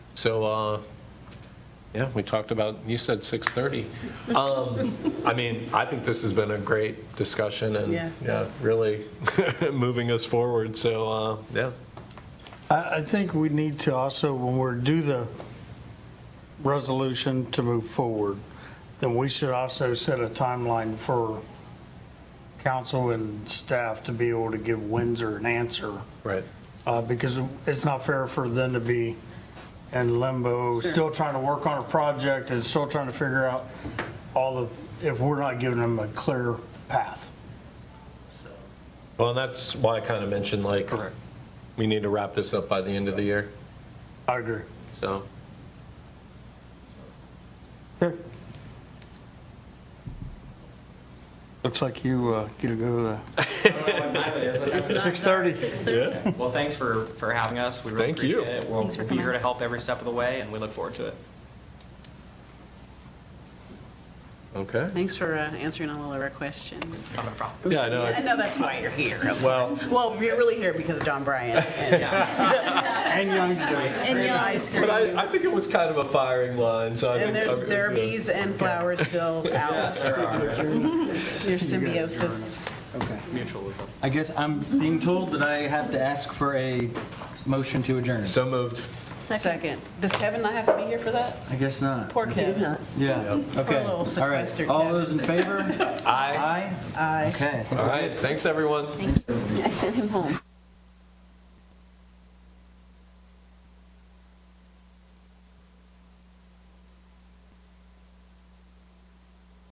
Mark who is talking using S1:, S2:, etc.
S1: So, uh, yeah, we talked about, you said 6:30. Um, I mean, I think this has been a great discussion and,
S2: Yeah.
S1: yeah, really moving us forward, so, uh, yeah.
S3: I, I think we need to also, when we're do the resolution to move forward, then we should also set a timeline for council and staff to be able to give Windsor an answer.
S1: Right.
S3: uh, because it's not fair for them to be in limbo, still trying to work on a project and still trying to figure out all the, if we're not giving them a clear path.
S1: Well, and that's why I kind of mentioned, like, we need to wrap this up by the end of the year,
S3: I agree.
S1: so.
S3: Looks like you uh, get to go to the.
S2: It's
S3: Six thirty.
S1: Yeah.
S4: Well, thanks for, for having us. We really
S1: Thank you.
S4: appreciate it. We'll
S2: Thanks for
S4: we'll be here
S2: coming.
S4: to help every step of the way, and we look forward to it.
S1: Okay.
S2: Thanks for uh, answering all of our questions.
S4: Not a problem.
S1: Yeah, I know.
S2: I know that's why you're here. of
S1: Well-
S2: course. Well, you're really here because of John Bryan.
S3: And Youngsville.
S2: And ice
S1: But
S2: cream.
S1: I, I think it was kind of a firing line, so I think.
S2: And there's, there are bees and flowers still out. Your symbiosis.
S5: Okay.
S4: Mutualism.
S5: I guess I'm being told that I have to ask for a motion to adjourn.
S1: So moved.
S2: Second. Does Kevin not have to be here for that?
S5: I guess not.
S2: Poor Kevin. He's not.
S5: Yeah, okay.
S2: little
S5: All right.
S2: sequestered
S5: All
S2: cat.
S5: those in favor?
S1: Aye.
S5: Aye?
S2: Aye.
S5: Okay. I think
S1: All right, thanks, everyone.
S6: I sent him home.